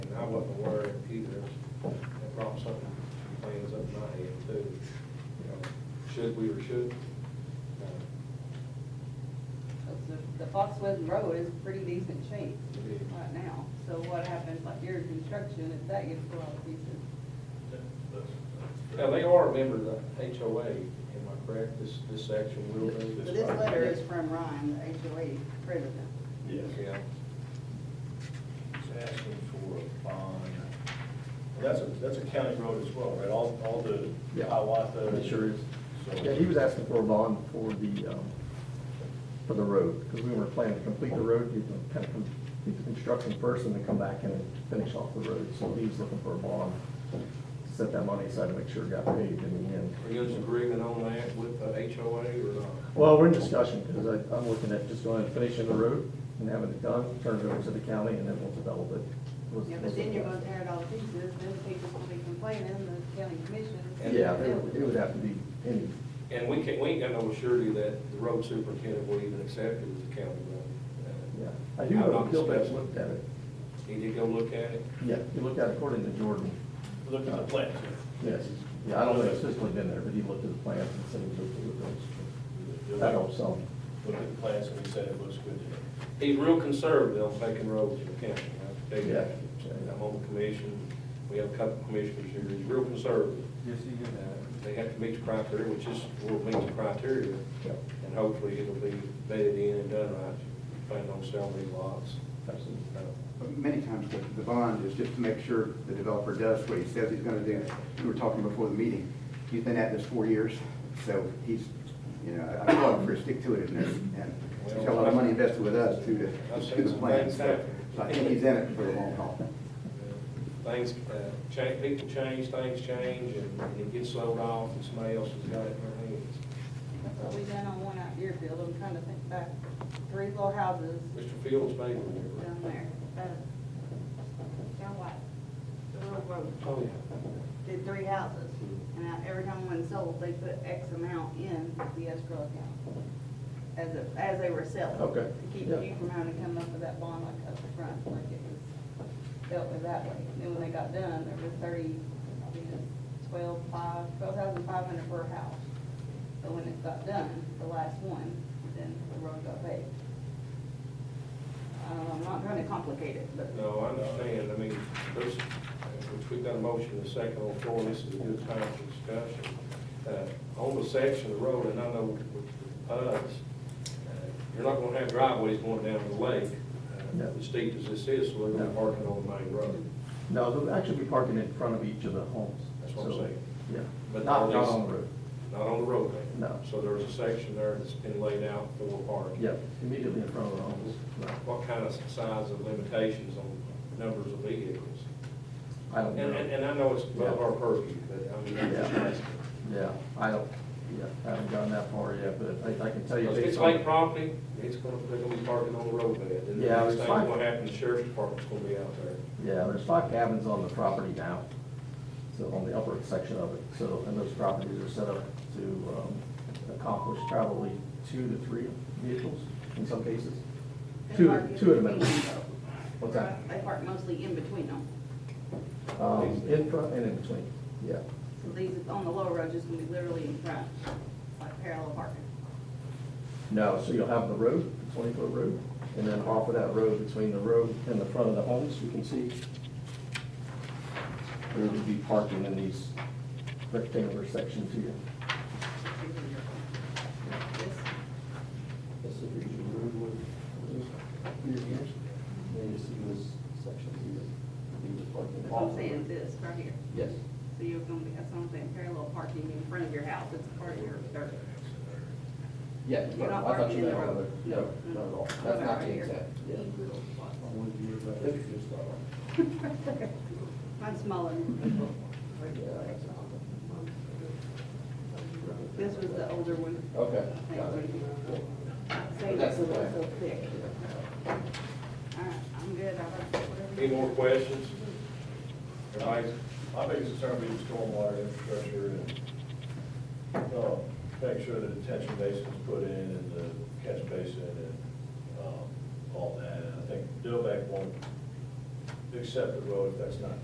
was up my head too, you know, should we or shouldn't? Uh, The- The Foxwoods Road is pretty decent shape It is. right now, so what happens like your construction, if that gets put on pieces? Now, they are a member of the HOA, am I correct, this, this section will be? But this letter is from Ryan, the HOA president. Yes. Yeah, It's asking for a bond. That's a, that's a county road as well, right? All, all the Yeah. Hiawatha. Uh, It sure is. So- Yeah, he was asking for a bond for the, um, for the road, because we were planning to complete the road, do the, kind of, do the construction first and then come back and finish off the road. So he was looking for a bond, to set that money aside to make sure it got paid in the end. are you in agreement on that with the HOA or not? Well, we're in discussion, because I, I'm looking at just going and finishing the road and having it done, turn it over to the county, and then we'll develop it. Was- Yeah, but then you're gonna tear it all to pieces, then people will be complaining, the county commission. Yeah, it would, it would have to be any, And we can't, we ain't got no surety that the road superintendent will even accept it as a county road. Uh, yeah. I do I'm know, not Bill Beck discussing. looked at it. He did go look at it? Yeah, he looked at it according to Jordan. Look at the plans. Yes, yeah, I don't think it's physically been there, but he looked at the plans and said he was okay with those. That helps some. Look at the plans and he said it looks good to him. He's real conservative on taking roads in the county, I tell you that. Yeah. I'm on the commission, we have a couple commissioners here, he's real conservative. Yes, you do that. They have to meet the criteria, which is, will meet the criteria, Yep. and hopefully it'll be vetted in and done right. Plan on selling these lots. Absolutely. Uh, But Many times the the bond is just to make sure the developer does what he says he's gonna do. We were talking before the meeting, he's been at this four years, so he's, you know, I- I applaud him for his stick-to-itiveness, and he's got a lot of money invested with us too, I've to, seen to the some plan. things So happen. I think he's in it for the long haul. Things, uh, change, people change, things change, and it gets sold off, and somebody else has got it in their hands. That's what we done on one out Deerfield, I'm trying to think back, three little houses Mr. Fields made one. down there, uh, down what? The little road. Oh, yeah. did three houses, Hmm. and I- every time one sold, they put X amount in the escrow account as, a- as they were selling. Okay. To keep Yeah. you from having to come up with that bond like up front, like it was dealt with that way. And then when they got done, there was thirty, I think it was twelve five, twelve thousand five hundred per house. But when it got done, the last one, then the road got paved. I don't know, I'm not trying to complicate it, but. No, I understand, I mean, there's, which we've got a motion and a second on the floor, this is a good time for discussion. Uh, On the section of the road, and I know with us, uh, you're not gonna have driveways going down the lake, uh, No. as steep as this is, so they're gonna be parking on the main road. No, they'll actually be parking in front of each of the homes. That's what I'm So, saying. Yeah. But Not, they'll not be- on the road. Not on the roadway. No. So there's a section there that's been laid out for parking. Yeah, immediately in front of the homes. Right. What kind of size of limitations on numbers of vehicles? I don't And, know. and and I know it's above our purview, but I mean, I'm just Yeah. asking. Yeah, I don't, yeah, I haven't gotten that far yet, but I, I can tell you. If it's based on- lake property, it's gonna, they're gonna be parking on the roadbed, and the Yeah, next it's thing fine. gonna happen, the sheriff's department's gonna be out there. Yeah, there's five cabins on the property now, so on the upper section of it. So, and those properties are set up to um, accomplish probably two to three vehicles in some cases. they Two, park in two at a minimum. between them, though. What's that? They park mostly in between them. Um, In front and in between, yeah. So these on the lower road just gonna be literally in front, like parallel parking. No, so you'll have the road, the twenty-foot road, and then off of that road, between the road and the front of the homes, you can see there would be parking in these rectangular sections here. This, This is your usual roadway. Here, here. And you see this section here, you just park in that's the what off I'm saying, this right here. Yes. So you're gonna be, that's what I'm saying, parallel parking in front of your house, it's part of your dirt. Yeah. You're not I thought parking in you the meant on road. the- No, not at all. That's Okay, not right the here. exact, yeah. Mine's smaller. This was the older one. Okay, Thank got it. you. But Say that's that's a little so okay. thick. All right, I'm good, I'll have whatever. Any you- more questions? Everybody's, My biggest concern would be the stormwater infrastructure and, um, make sure the detention basin's put in and the catch basin and, um, all that. And I think Dillback won't accept the road if that's not